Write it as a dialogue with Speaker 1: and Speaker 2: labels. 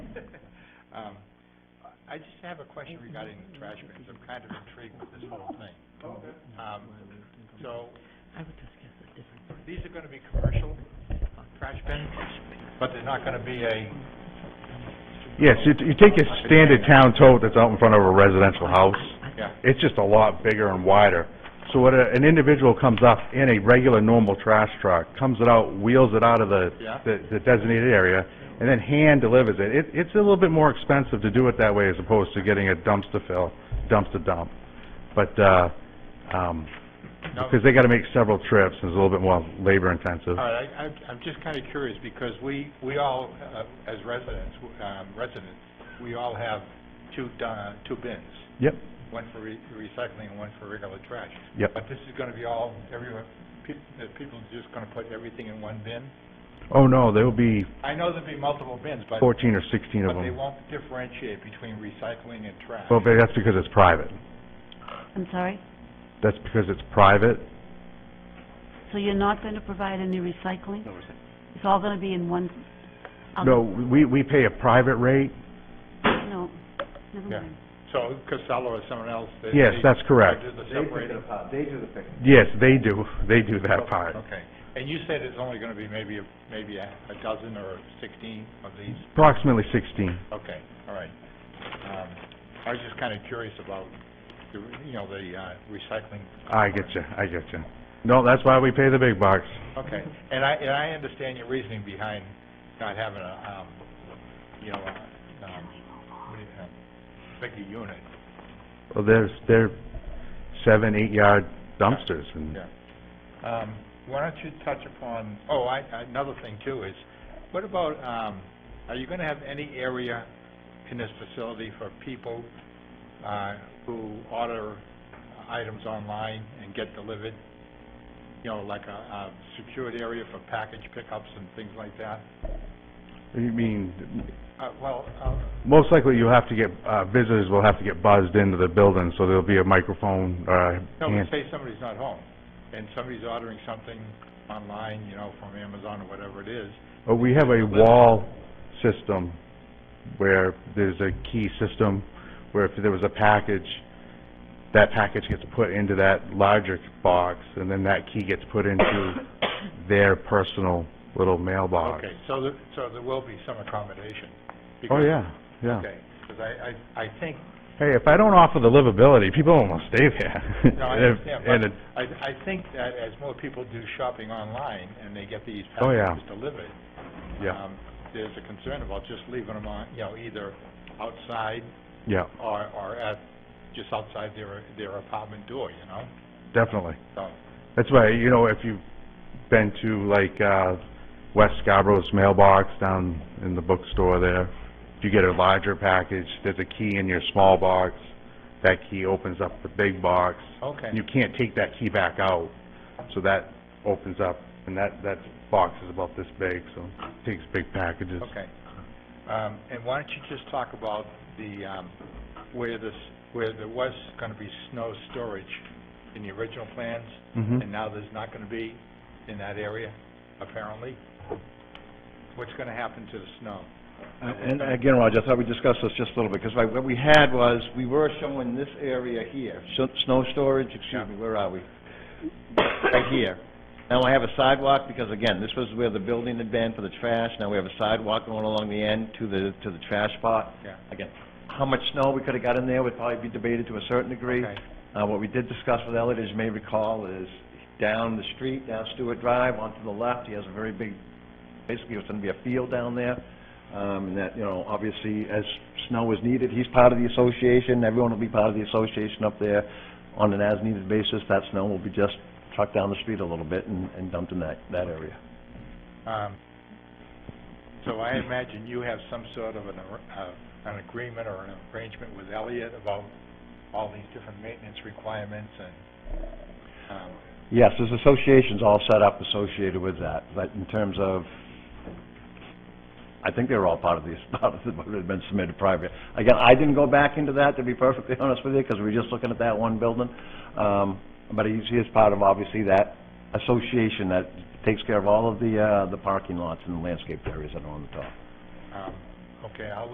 Speaker 1: Um, I just have a question regarding the trash bins. I'm kind of intrigued with this whole thing.
Speaker 2: Okay.
Speaker 1: Um, so,
Speaker 3: I would discuss a different part.
Speaker 1: these are gonna be commercial trash bins, but they're not gonna be a,
Speaker 4: Yes, you, you take your standard town tote that's out in front of a residential house,
Speaker 1: yeah,
Speaker 4: it's just a lot bigger and wider. So when a- an individual comes up in a regular, normal trash truck, comes it out, wheels it out of the,
Speaker 1: Yeah.
Speaker 4: the the designated area, and then hand delivers it, it, it's a little bit more expensive to do it that way as opposed to getting a dumpster fill, dumpster dump. But, uh, um,
Speaker 1: no?
Speaker 4: because they gotta make several trips, and it's a little bit more labor intensive.
Speaker 1: All right, I, I'm, I'm just kinda curious, because we, we all, uh, as residents, um, residents, we all have two, uh, two bins.
Speaker 4: Yep,
Speaker 1: one for re- recycling and one for regular trash.
Speaker 4: Yep.
Speaker 1: But this is gonna be all, everyone, pe- uh, people are just gonna put everything in one bin?
Speaker 4: oh no, there'll be
Speaker 1: I know there'll be multiple bins, but, but
Speaker 4: fourteen or sixteen of
Speaker 1: they
Speaker 4: them.
Speaker 1: won't differentiate between recycling and trash.
Speaker 4: Well, but that's because it's private,
Speaker 3: I'm sorry?
Speaker 4: that's because it's private,
Speaker 3: So you're not going to provide any recycling? No recycling. It's all going to be in one... I'll-
Speaker 4: No, we, we pay a private rate.
Speaker 3: No, never
Speaker 1: Yeah.
Speaker 3: mind.
Speaker 1: So Casella or someone else, they...
Speaker 4: Yes,
Speaker 1: they-
Speaker 4: that's correct.
Speaker 1: they Do the
Speaker 2: They pick
Speaker 1: separating?
Speaker 2: it up, they do the picking.
Speaker 4: Yes, they do, they do that part.
Speaker 1: Okay. And you said it's only gonna be maybe, a maybe a a dozen or sixteen of these?
Speaker 4: Approximately sixteen.
Speaker 1: Okay, all right. Um, I was just kinda curious about, the re- you know, the uh, recycling.
Speaker 4: I
Speaker 1: component.
Speaker 4: get you, I get you. No, that's why we pay the big bucks.
Speaker 1: Okay, and I, and I understand your reasoning behind not having a, um, you know, a, um, what do you, um, bigger unit.
Speaker 4: Well, there's, they're seven, eight-yard dumpsters, and
Speaker 1: Yeah. Um, why don't you touch upon, oh, I, another thing too is, what about, um, are you gonna have any area in this facility for people, uh, who order items online and get delivered? You know, like a, a secured area for package pickups and things like that?
Speaker 4: you mean,
Speaker 1: Uh, well, uh,
Speaker 4: most likely you'll have to get, uh, visitors will have to get buzzed into the building, so there'll be a microphone, uh,
Speaker 1: No, but
Speaker 4: hand-
Speaker 1: say somebody's not home, and somebody's ordering something online, you know, from Amazon or whatever it is.
Speaker 4: But we have a wall system where there's a key system where if there was a package, that package gets put into that larger box and then that key gets put into their personal little mailbox.
Speaker 1: Okay, so there, so there will be some accommodation.
Speaker 4: Uh, Oh,
Speaker 1: because-
Speaker 4: yeah, yeah.
Speaker 1: Okay, because I, I, I think,
Speaker 4: Hey, if I don't offer the livability, people don't want to stay there.
Speaker 1: no, I
Speaker 4: And if-
Speaker 1: understand,
Speaker 4: and
Speaker 1: but
Speaker 4: it-
Speaker 1: I, I think that as more people do shopping online, and they get these
Speaker 4: Oh, yeah.
Speaker 1: packages delivered.
Speaker 4: Yeah,
Speaker 1: um, There's a concern about just leaving them on, you know, either outside
Speaker 4: yeah,
Speaker 1: or, or at, just outside their, their apartment door, you know,
Speaker 4: definitely.
Speaker 1: so.
Speaker 4: That's why, you know, if you've been to like, uh, West Scarborough's mailbox down in the bookstore there, if you get a larger package, there's a key in your small box, that key opens up the big box.
Speaker 1: Okay.
Speaker 4: You can't take that key back out, so that opens up, and that, that box is about this big, so it takes big packages.
Speaker 1: Okay. Um, and why don't you just talk about the, um, where this, where there was gonna be snow storage in the original plans,
Speaker 4: Mhm.
Speaker 1: and now there's not gonna be in that area, apparently? What's gonna happen to the snow?
Speaker 2: Uh, And again, Roger, I thought we discussed this just a little bit, because what we had was, we were showing this area here, so- snow storage,
Speaker 1: Yeah.
Speaker 2: excuse me, where are we? Right here. Now I have a sidewalk, because again, this was where the building had been for the trash, now we have a sidewalk going along the end to the, to the trash spot.
Speaker 1: Yeah.
Speaker 2: Again, how much snow we could have got in there would probably be debated to a certain degree.
Speaker 1: Okay.
Speaker 2: Uh, what we did discuss with Elliot, as you may recall, is down the street, down Stewart Drive, onto the left, he has a very big, basically, it's gonna be a field down there. Um, and that, you know, obviously, as snow is needed, he's part of the association, everyone will be part of the association up there. On an as-needed basis, that snow will be just trucked down the street a little bit and, and dumped in that, that area.
Speaker 1: Um, so I imagine you have some sort of an, ar- uh, an agreement or an arrangement with Elliot about all these different maintenance requirements and, um,
Speaker 2: Yes, there's associations all set up associated with that, but in terms of, I think they were all part of these, part of the, what had been submitted prior. Again, I didn't go back into that, to be perfectly honest with you, because we were just looking at that one building. Um, but he's, he is part of, obviously, that association that takes care of all of the, uh, the parking lots and landscaped areas that are on the top.
Speaker 1: um, okay, I'll